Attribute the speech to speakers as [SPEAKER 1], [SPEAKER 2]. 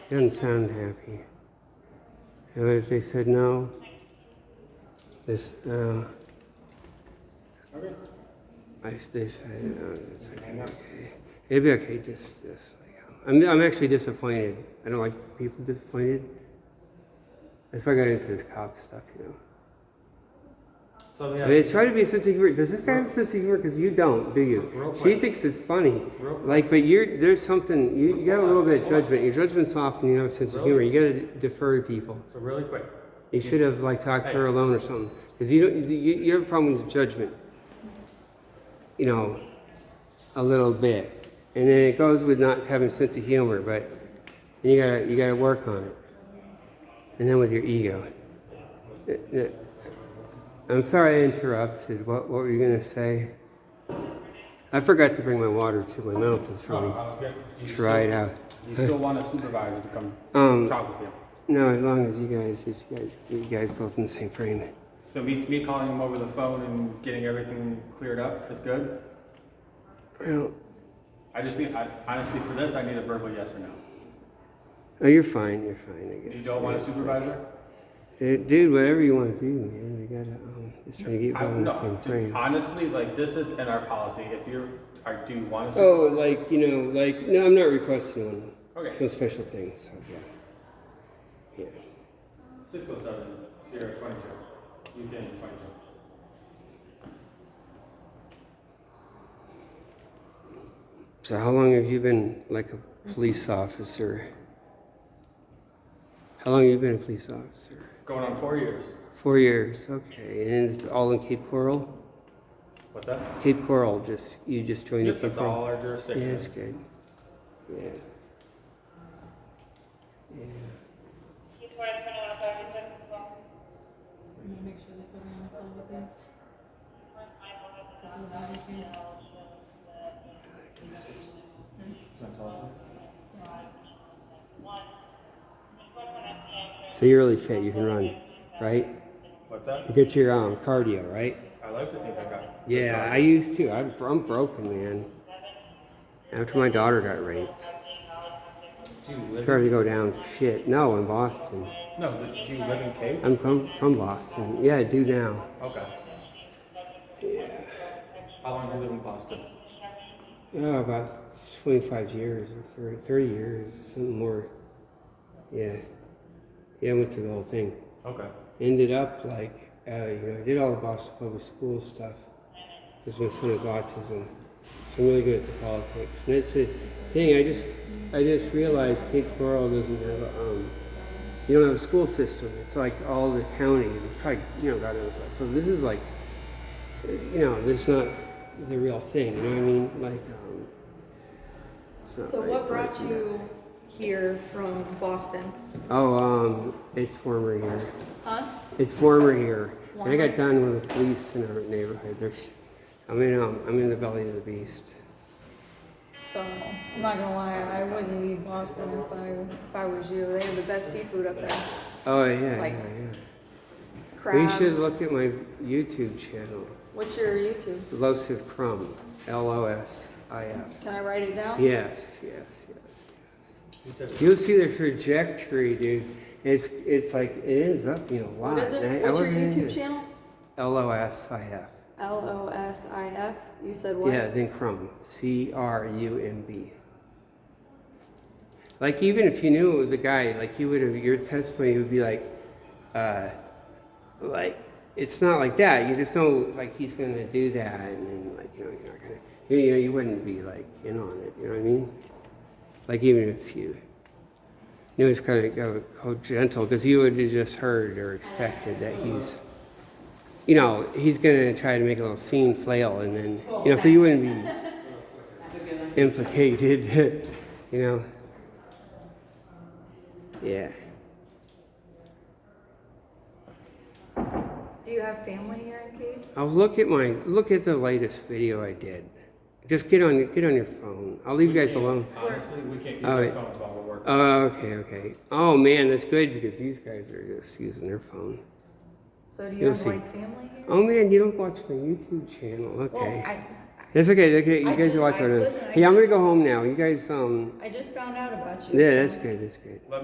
[SPEAKER 1] doesn't sound happy. And they- they said, no, this, uh,
[SPEAKER 2] Okay.
[SPEAKER 1] I, s- they said, uh, it's okay. it'd be okay, just, just, like, I'm, I'm actually disappointed. I don't like people disappointed. That's why I got into this cop stuff, you know.
[SPEAKER 2] So
[SPEAKER 1] I
[SPEAKER 2] yeah.
[SPEAKER 1] mean, it's trying to be a sense of humor. Does this guy have a sense of humor? Because you don't, do
[SPEAKER 2] Real
[SPEAKER 1] you? She
[SPEAKER 2] quick.
[SPEAKER 1] thinks it's funny.
[SPEAKER 2] Real quick.
[SPEAKER 1] Like, but you're there's something you, you got a little bit of judgment. Your judgment's off, and you don't have a sense of humor. You got to defer to people.
[SPEAKER 2] So really quick.
[SPEAKER 1] You should have like talked to her alone or something. Because you don't you, you have a problem with judgment. You know, a little bit, and then it goes with not having a sense of humor. But you gotta you gotta work on it, and then with your ego. Uh, uh, I'm sorry I interrupted. What what were you gonna say? I forgot to bring my water to my mouth. It's
[SPEAKER 2] Oh, I
[SPEAKER 1] really
[SPEAKER 2] was good. You still-
[SPEAKER 1] dried out.
[SPEAKER 2] You still want a supervisor to come
[SPEAKER 1] Um,
[SPEAKER 2] talk with you?
[SPEAKER 1] No, as long as you guys, as you guys, you guys both in the same frame.
[SPEAKER 2] So me, me calling him over the phone and getting everything cleared up is good.
[SPEAKER 1] Well,
[SPEAKER 2] I just need, I, honestly, for this, I need a verbal yes or no.
[SPEAKER 1] Oh, you're fine. You're fine. I guess.
[SPEAKER 2] You don't want a
[SPEAKER 1] Yeah.
[SPEAKER 2] supervisor?
[SPEAKER 1] Dude, dude, whatever you want to do, man. We gotta um, just trying to get
[SPEAKER 2] I,
[SPEAKER 1] both in the same
[SPEAKER 2] no, dude,
[SPEAKER 1] frame.
[SPEAKER 2] honestly, like this is in our policy. If you're, I do want a supervisor.
[SPEAKER 1] Oh, like you know, like no, I'm not requesting one.
[SPEAKER 2] Okay.
[SPEAKER 1] Some special thing. So yeah, yeah.
[SPEAKER 2] Six oh seven, Sierra twenty-two, UK twenty-two.
[SPEAKER 1] So how long have you been like a police officer? How long have you been a police officer?
[SPEAKER 2] Going on four years.
[SPEAKER 1] Four years. Okay, and it's all in Cape Coral.
[SPEAKER 2] What's that?
[SPEAKER 1] Cape Coral. Just you just joined
[SPEAKER 2] Yep,
[SPEAKER 1] the Cape
[SPEAKER 2] that's
[SPEAKER 1] Coral.
[SPEAKER 2] all our
[SPEAKER 1] Yeah, it's
[SPEAKER 2] jurisdictions.
[SPEAKER 1] good. Yeah. Yeah.
[SPEAKER 3] I'm gonna make sure they put me on the phone with them. Isn't that okay?
[SPEAKER 1] So you're really fit. You can run, right?
[SPEAKER 2] What's that?
[SPEAKER 1] You get your um, cardio, right?
[SPEAKER 2] I like to think I got.
[SPEAKER 1] Yeah, I used to. I'm, I'm broken, man. After my daughter got raped,
[SPEAKER 2] Do you
[SPEAKER 1] I
[SPEAKER 2] live?
[SPEAKER 1] started to go down to shit. No, in Boston.
[SPEAKER 2] No, the- do you live in Cape?
[SPEAKER 1] I'm from, from Boston. Yeah, I do now.
[SPEAKER 2] Okay. How long do you live in Boston?
[SPEAKER 1] Yeah, Oh, about 25 years or 30, 30 years, something more. Yeah. Yeah, I went through the whole thing.
[SPEAKER 2] Okay.
[SPEAKER 1] ended up like uh, you know I did all the Boston Public School stuff because my son has autism, so I'm really good at the politics. And it's a thing I just I just realized Cape Coral doesn't have a, um, you don't have a school system. It's like all the county and probably you know God knows what. So this is like you know this is not the real thing. You know what I mean? Like um, it's not
[SPEAKER 4] So
[SPEAKER 1] like-
[SPEAKER 4] what brought
[SPEAKER 1] like,
[SPEAKER 4] you here from Boston?
[SPEAKER 1] Oh, um, it's warmer here.
[SPEAKER 4] Huh?
[SPEAKER 1] It's warmer here. And I
[SPEAKER 4] Warmer?
[SPEAKER 1] got done with the police in our neighborhood. There's, I'm in, um, I'm in the belly of the beast.
[SPEAKER 4] So I'm not gonna lie, I wouldn't leave Boston if I if I was you. They have the best seafood up there.
[SPEAKER 1] Oh yeah,
[SPEAKER 4] Like
[SPEAKER 1] yeah, yeah. We
[SPEAKER 4] Crabs.
[SPEAKER 1] should look at my YouTube channel,
[SPEAKER 4] What's your YouTube?
[SPEAKER 1] Losif Crumb, L-O-S-I-F.
[SPEAKER 4] Can I write it down?
[SPEAKER 1] Yes, yes, yes.
[SPEAKER 2] You said
[SPEAKER 1] You'll see the trajectory, dude. It's, it's like it ends up being a lot.
[SPEAKER 4] What is
[SPEAKER 1] And I-
[SPEAKER 4] it?
[SPEAKER 1] I
[SPEAKER 4] What's your
[SPEAKER 1] wasn't into
[SPEAKER 4] YouTube
[SPEAKER 1] it.
[SPEAKER 4] channel?
[SPEAKER 1] L-O-S-I-F.
[SPEAKER 4] L O S I F. You said what?
[SPEAKER 1] Yeah, then crumb. C R U M B. Like even if you knew the guy, like you would have your testimony would be like, uh, like it's not like that. You just know like he's gonna do that, and then like you know you're not gonna, you, you know you wouldn't be like in on it. You know what I mean? Like even if you knew it's gonna go, go gentle, because you would have just heard or expected that he's you know, he's gonna try to make a little scene flail and then, you know, so you wouldn't be implicated, you know? Yeah.
[SPEAKER 4] Do you have family here in Cape?
[SPEAKER 1] I'll Oh, look at my, look at the latest video I did. Just get on, get on your phone. I'll leave you guys alone.
[SPEAKER 2] Honestly, we can't use
[SPEAKER 1] Oh,
[SPEAKER 2] our
[SPEAKER 1] wait.
[SPEAKER 2] phones while we're working.
[SPEAKER 1] Oh, okay, okay. Oh man, that's good because these guys are just using their phone.
[SPEAKER 4] So do you
[SPEAKER 1] You'll
[SPEAKER 4] have
[SPEAKER 1] see.
[SPEAKER 4] like family here?
[SPEAKER 1] Oh man, you don't watch my YouTube channel,
[SPEAKER 4] Well,
[SPEAKER 1] okay.
[SPEAKER 4] I
[SPEAKER 1] That's okay, okay,
[SPEAKER 4] I
[SPEAKER 1] you guys
[SPEAKER 4] ju-
[SPEAKER 1] watch
[SPEAKER 4] I-
[SPEAKER 1] what I,
[SPEAKER 4] listen, I
[SPEAKER 1] hey, I'm gonna
[SPEAKER 4] just-
[SPEAKER 1] go home now. You guys, um,
[SPEAKER 4] I just found out about you.
[SPEAKER 1] yeah,
[SPEAKER 4] so-
[SPEAKER 1] that's good, that's good.